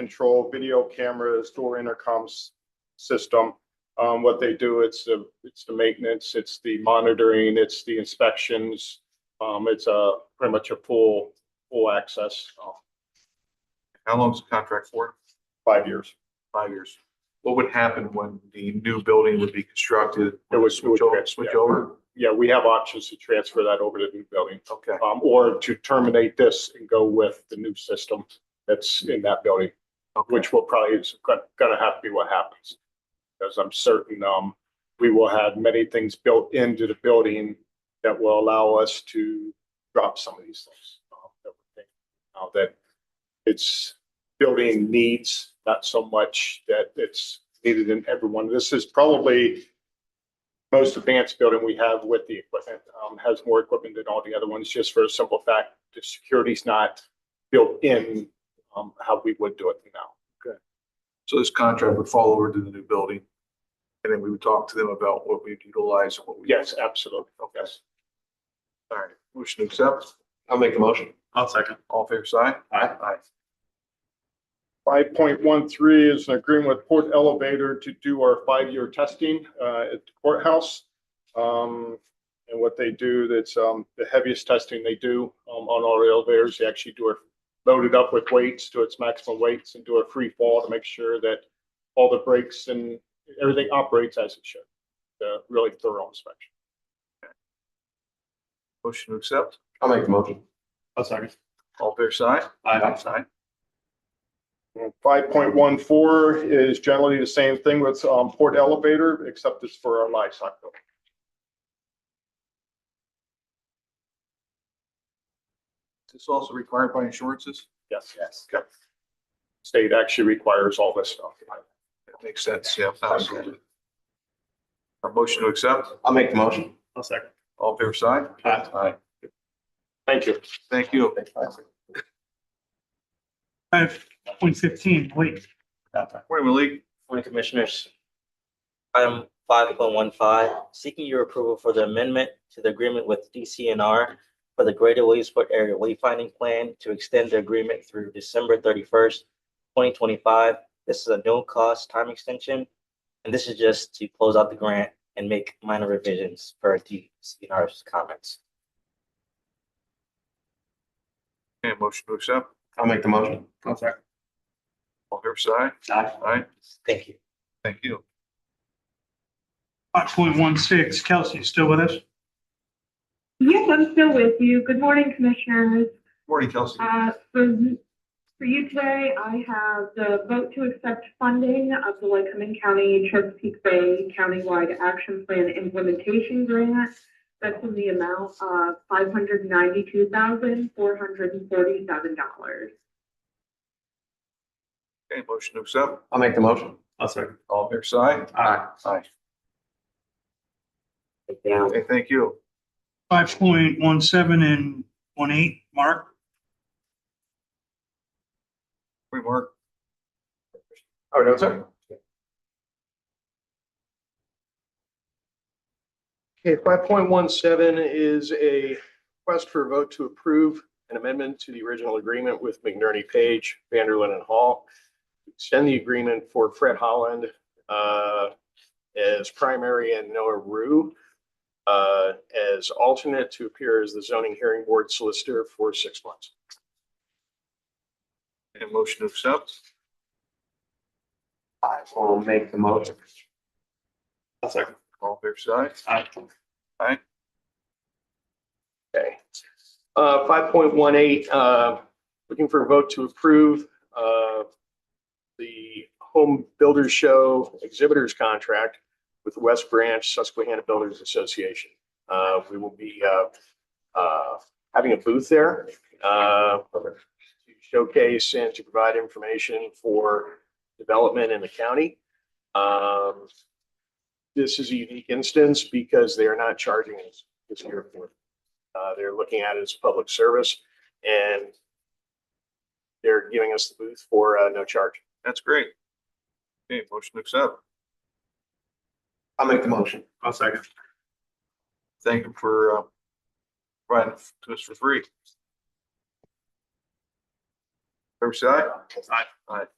control, video cameras, door intercoms system. Um, what they do, it's the, it's the maintenance, it's the monitoring, it's the inspections. Um, it's a, pretty much a full, full access, uh, How long's the contract for? five years. Five years. What would happen when the new building would be constructed? It would- Switch over, yeah. switch over? Yeah, we have options to transfer that over to the new building, Okay, um, or to terminate this and go with the new system that's in that building. okay, which will probably is go- gonna have to be what happens. Because I'm certain, um, we will have many things built into the building that will allow us to drop some of these things. uh, that we're thinking Now that it's building needs, not so much that it's needed in everyone. This is probably most advanced building we have with the equipment, um, has more equipment than all the other ones, just for a simple fact, the security's not built in, um, how we would do it now. so this contract would fall over to the new building. And then we would talk to them about what we utilize and what we. Yes, absolutely. Okay, Yes. all right, motion to accept, I'll make the motion. I'll second. all fair side? Aye. Aye. Five point one three is an agreement with Port Elevator to do our five-year testing uh, at the courthouse. Um, And what they do, that's um, the heaviest testing they do um, on all the elevators. They actually do it loaded up with weights to its maximum weights and do a free fall to make sure that all the brakes and everything operates as it should. Uh, Really thorough inspection. Motion to accept, I'll make the motion. I'll second. all fair side? Aye. Aye. Five point one four is generally the same thing with um, Port Elevator, except it's for our livestock building. Is this also required by insurances? Yes. Yes. State actually requires all this stuff. That makes sense, yeah, absolutely. Our motion to accept, I'll make the motion. I'll second. all fair side? Aye. Aye, Thank you. thank you. Five point fifteen, wait. Morning, Malik. Morning, Commissioners. Item five point one five, seeking your approval for the amendment to the agreement with DCNR for the Greater Williamsport Area Wayfinding Plan to extend the agreement through December thirty-first, twenty twenty-five. This is a no-cost time extension, and this is just to close out the grant and make minor revisions per DCNR's comments. Okay, motion to accept, I'll make the motion. I'll second. all fair side? Aye, Thank you. thank you. Five point one six, Kelsey, you still with us? Yes, I'm still with you. Good morning, Commissioners. Morning, Kelsey. Uh, For for you today, I have the vote to accept funding of the Lycoming County Chesapeake Bay Countywide Action Plan Implementation Grant. That's in the amount of $592,447. Okay, motion to accept, I'll make the motion. I'll second. all fair side? Aye. Aye, Thank you. okay, thank you. Five point one seven and one eight, Mark? Morning, Mark. All right, sir. Okay, five point one seven is a request for a vote to approve an amendment to the original agreement with McNerney Page, Vanderlin and Hall. Extend the agreement for Fred Holland uh, as primary and Noah Rue uh, as alternate to appear as the zoning hearing board solicitor for six months. And motion to accept, I will make the motion. I'll second. all fair side? Aye. Okay. Uh, five point one eight, uh, looking for a vote to approve, uh, the Home Builders Show Exhibitors Contract with West Branch Susquehanna Builders Association. Uh, we will be, uh, uh, having a booth there, uh, to showcase and to provide information for development in the county. Um, this is a unique instance because they are not charging us this year for uh, they're looking at it as public service and they're giving us the booth for, uh, no charge. That's great. Okay, motion to accept, I'll make the motion. I'll second. thank you for, uh, providing to us for free. Fair side? Aye. Aye.